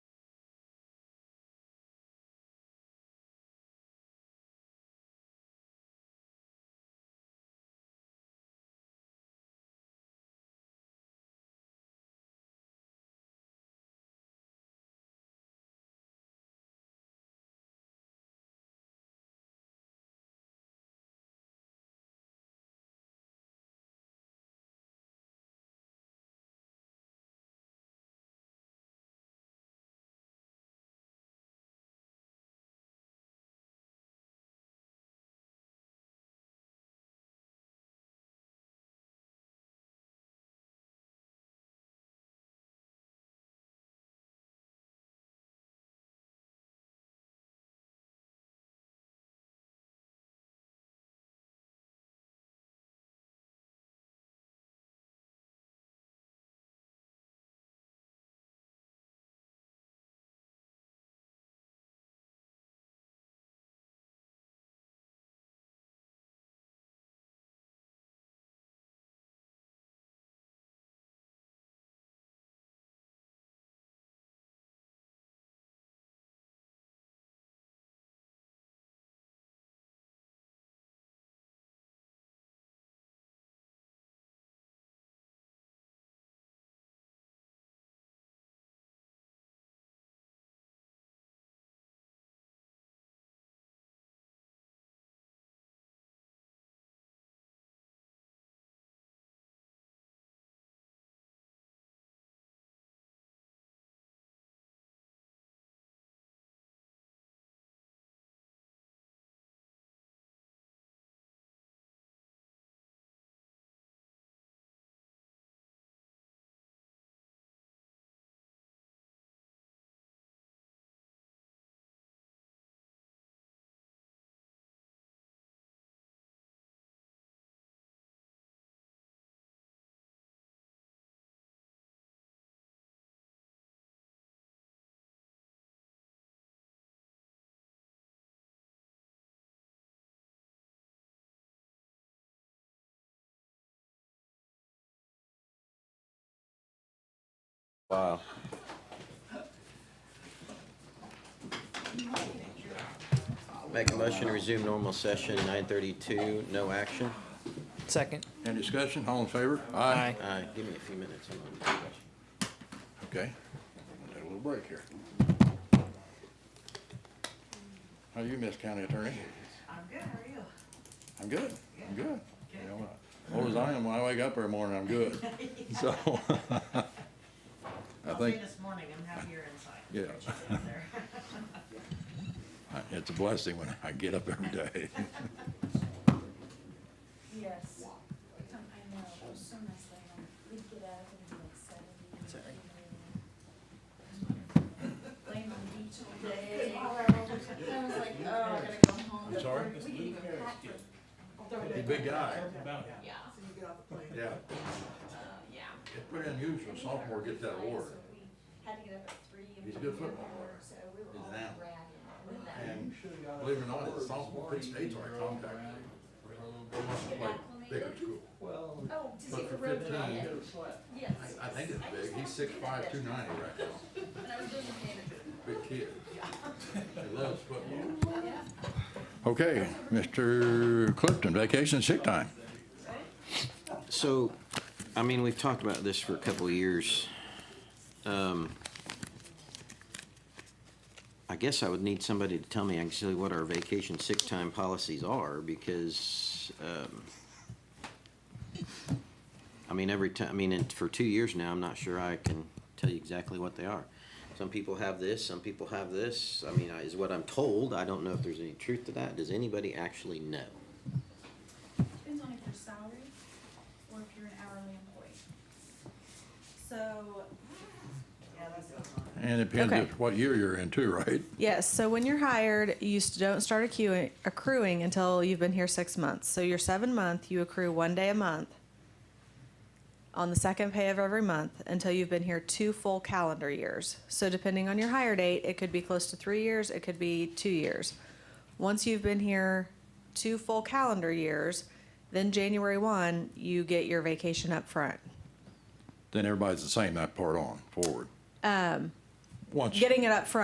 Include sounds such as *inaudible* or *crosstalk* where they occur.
Wow. Make a motion to resume normal session, 9:32, no action. Second. Any discussion? All in favor? Aye. Uh, Give me a few minutes. I'm on the Okay. We'll Take a little break here. How you, Miss County Attorney? I'm good, how are you? I'm good. I'm good. You know, uh, Old as I am, when I wake up every morning, I'm good. So. *laughs* I I'll say think, this morning, I'm happier inside. yeah, *laughs* than there. it's a blessing when I get up every day. Yes. Um, I know, it was so nice laying on, we'd get up and be like seventy. Sorry. Laying on the beach all day. I was like, oh, I gotta go home. I'm sorry? We didn't even pack for, You big guy. yeah, Yeah. yeah. It's pretty unusual. Sophomore get that award. So we had to get up at three. and He's a good we were football all- player. So we were He's an all athlete. ratted. with that. And believe it or not, it's sophomore, Penn State's our contact. They must have played big in school. Oh, to see But for the road 15, running. Yes. I, I think it's big, he's six five, two ninety right now, And I was doing the manager. big kid. He loves football. Okay, Mr. Clifton, vacation sick time. question. So, I mean, we've talked about this for a couple of years. Um, I guess I would need somebody to tell me actually what our vacation sick time policies are, because, um, I mean, every time, I mean, and for two years now, I'm not sure I can tell you exactly what they are. Some people have this, some people have this, I mean, I- is what I'm told, I don't know if there's any truth to that, does anybody actually know? Depends on if you're salary or if you're an hourly employee. So, Yeah, that's going on. And it depends Okay. just what year you're in too, right? yes, so when you're hired, you s- don't start accruing, accruing until you've been here six months. So your seven month, you accrue one day a month on the second pay of every month until you've been here two full calendar years. So depending on your hire date, it could be close to three years, it could be two years. Once you've been here two full calendar years, then January one, you get your vacation up front. Then everybody's the same that part on, forward. Um. Once. Getting it up front